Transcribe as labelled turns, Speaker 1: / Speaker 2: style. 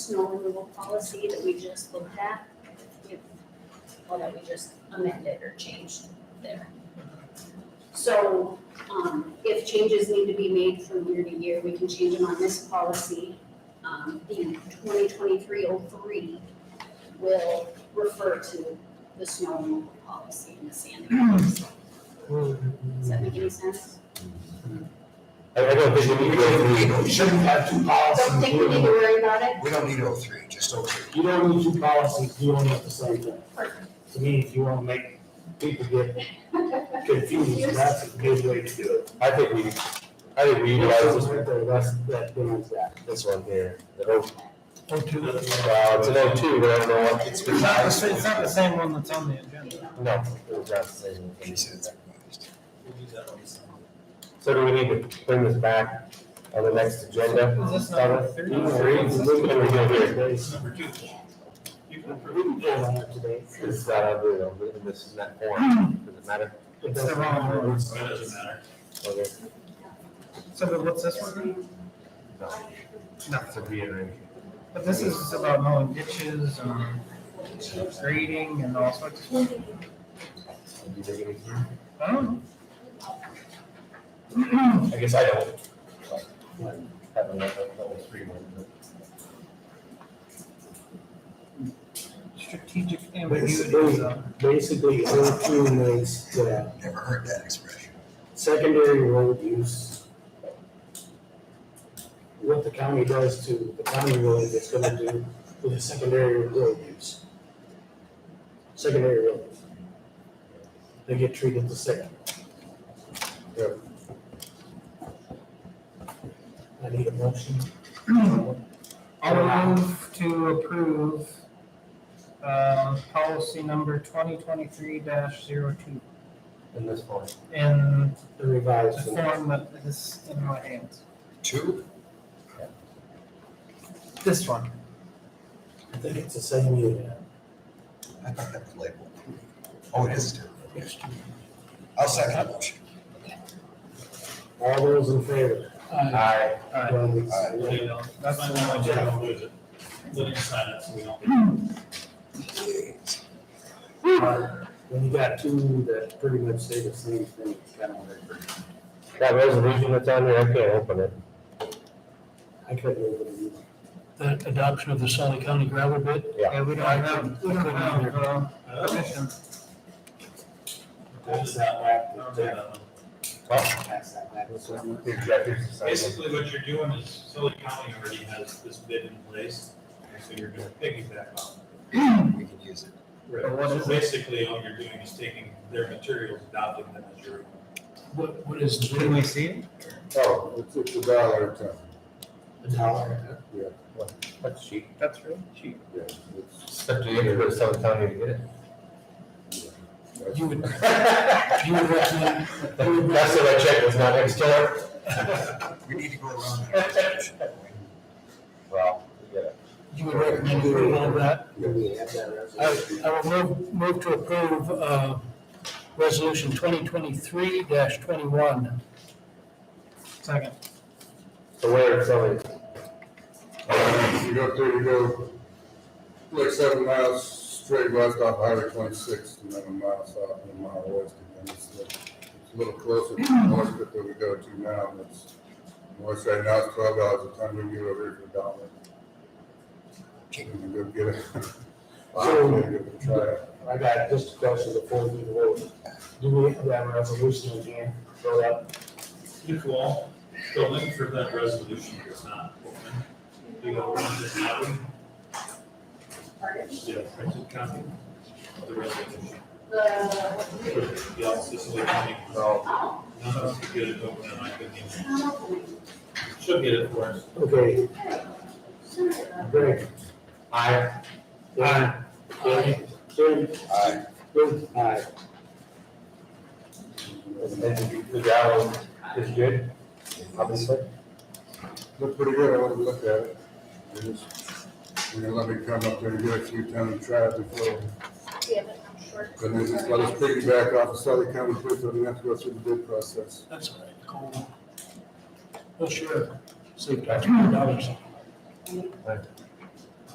Speaker 1: snow removal policy that we just looked at. if- Well, that we just amended or changed there. So, um, if changes need to be made from year to year, we can change them on this policy. Um, the twenty twenty-three oh three will refer to the snow removal policy and the sand policy. Does that make any sense?
Speaker 2: I, I don't think we need to go
Speaker 3: We
Speaker 2: through,
Speaker 3: don't- we shouldn't have two policies.
Speaker 1: Don't think we need to worry about it?
Speaker 3: We don't need O three, just O three.
Speaker 4: You don't need two policies, you only have the same thing.
Speaker 1: Perfect.
Speaker 4: To me, if you wanna make people get confused, that's a good way to do it.
Speaker 2: I think we, I think we utilize this,
Speaker 4: Right there, That's, that damages that.
Speaker 2: this one here, the O,
Speaker 5: Oh, two.
Speaker 2: uh, it's an O two, but I don't know what.
Speaker 3: It's
Speaker 5: It's not the same, it's not the same one that's on the agenda.
Speaker 2: No, it was not the same.
Speaker 3: She said it's-
Speaker 2: So do we need to bring this back on the next agenda?
Speaker 5: Is this number three?
Speaker 2: Three, look what we got here.
Speaker 4: It's
Speaker 5: Number two. You can approve.
Speaker 4: really good on it today.
Speaker 2: This is uh, not under, though, but this is not form, does it matter?
Speaker 4: It
Speaker 5: It's the
Speaker 4: doesn't
Speaker 5: wrong
Speaker 4: matter.
Speaker 5: one.
Speaker 6: It doesn't matter.
Speaker 2: Okay.
Speaker 5: So but what's this one?
Speaker 2: No,
Speaker 5: No,
Speaker 2: it's a B and A.
Speaker 5: but this is about mowing ditches and grading and all sorts of stuff.
Speaker 2: Do you think it is?
Speaker 5: I don't know.
Speaker 2: I guess I don't. like, Have a level, level three one, but.
Speaker 5: Strategic ambiguity is
Speaker 4: Basically,
Speaker 5: a.
Speaker 4: basically, O two makes the
Speaker 3: Never heard that expression.
Speaker 4: secondary road use. What the county does to the county road, it's gonna do to the secondary road use. Secondary roads. They get treated the same.
Speaker 2: Yep.
Speaker 4: I need a motion.
Speaker 5: I'll move to approve, um, policy number twenty twenty-three dash zero two
Speaker 2: In this form.
Speaker 5: in
Speaker 4: The revised.
Speaker 5: the form that is in my hands.
Speaker 3: Two?
Speaker 5: This one.
Speaker 4: I think it's the same unit.
Speaker 3: I thought that was labeled. Oh, it is two. Yes. I'll second the motion.
Speaker 4: All those in favor?
Speaker 2: Aye.
Speaker 5: Alright.
Speaker 4: Well, we-
Speaker 3: Aye.
Speaker 5: There you go. That's
Speaker 6: That's
Speaker 5: my
Speaker 6: the one
Speaker 5: one.
Speaker 6: I
Speaker 5: Jeff.
Speaker 6: did lose it. Living inside it, so we don't.
Speaker 3: Yes.
Speaker 4: When you got two that pretty much say the same thing, it's kind of weird.
Speaker 2: That resolution that's on there, I can't open it.
Speaker 4: I couldn't even.
Speaker 7: the adoption of the Sally County gravel bid.
Speaker 2: Yeah.
Speaker 5: Yeah, we don't have, we don't have, uh, permission.
Speaker 6: Is that one? I don't do that one.
Speaker 4: pass that back.
Speaker 2: The executive session.
Speaker 6: Basically, what you're doing is Sully County already has this bid in place, and so you're gonna piggyback on
Speaker 3: We can use it.
Speaker 6: it.
Speaker 5: But what
Speaker 6: So
Speaker 5: is it?
Speaker 6: Basically, all you're doing is taking their materials, adopting them as your own.
Speaker 7: What, what is the
Speaker 5: Can
Speaker 7: bid?
Speaker 5: we see it?
Speaker 2: Oh, it's, it's a dollar, it's,
Speaker 4: A dollar.
Speaker 2: yeah, what, that's cheap.
Speaker 5: That's really cheap.
Speaker 2: Yeah. Except you gotta go to Southern County to get it.
Speaker 7: You would,
Speaker 2: That's
Speaker 7: you would recommend,
Speaker 2: what I checked, it's not next door.
Speaker 3: We need to go around. that.
Speaker 2: Well, yeah.
Speaker 7: you would recommend approval of that?
Speaker 4: Do we have that
Speaker 7: I,
Speaker 4: resolution?
Speaker 7: I will move, move to approve, uh, resolution twenty twenty-three twenty-one.
Speaker 5: Second.
Speaker 2: So where it's always,
Speaker 8: Uh, You go through, you go like seven miles straight west off Highway twenty-six and then a mile south and a mile west. And then it's a little- it's a little closer to the north that we go to now. and It's, north right now it's twelve dollars a ton. We can get it over here for a dollar. And go get it.
Speaker 4: So-
Speaker 8: I'll give it a try.
Speaker 4: I got just a question before we vote. Do we have that resolution again? Fill up.
Speaker 6: Nicole, the link for that resolution is not open. You go run this out,
Speaker 1: Pardon?
Speaker 6: yeah, printed copy of the resolution.
Speaker 1: The,
Speaker 6: Yeah, Sully County.
Speaker 2: so,
Speaker 1: oh,
Speaker 6: None of us could get it open, and I couldn't even,
Speaker 1: I'm opening.
Speaker 6: should get it for us.
Speaker 4: Okay,
Speaker 1: Sure.
Speaker 4: Greg.
Speaker 2: I,
Speaker 4: Aye. Jim. Jim.
Speaker 3: Aye.
Speaker 4: Jim. Aye.
Speaker 2: and the gravel is good, obviously.
Speaker 8: Looked pretty good. I wanted to look at it. They just- They're gonna let me come up there and get a few ton and try it before
Speaker 1: Yeah, but I'm sure.
Speaker 8: And they just let us piggyback off of Southern County Bridge, so we have to go through the bid process.
Speaker 7: That's all right, Nicole. Well, sure, save taxpayer dollars.
Speaker 2: But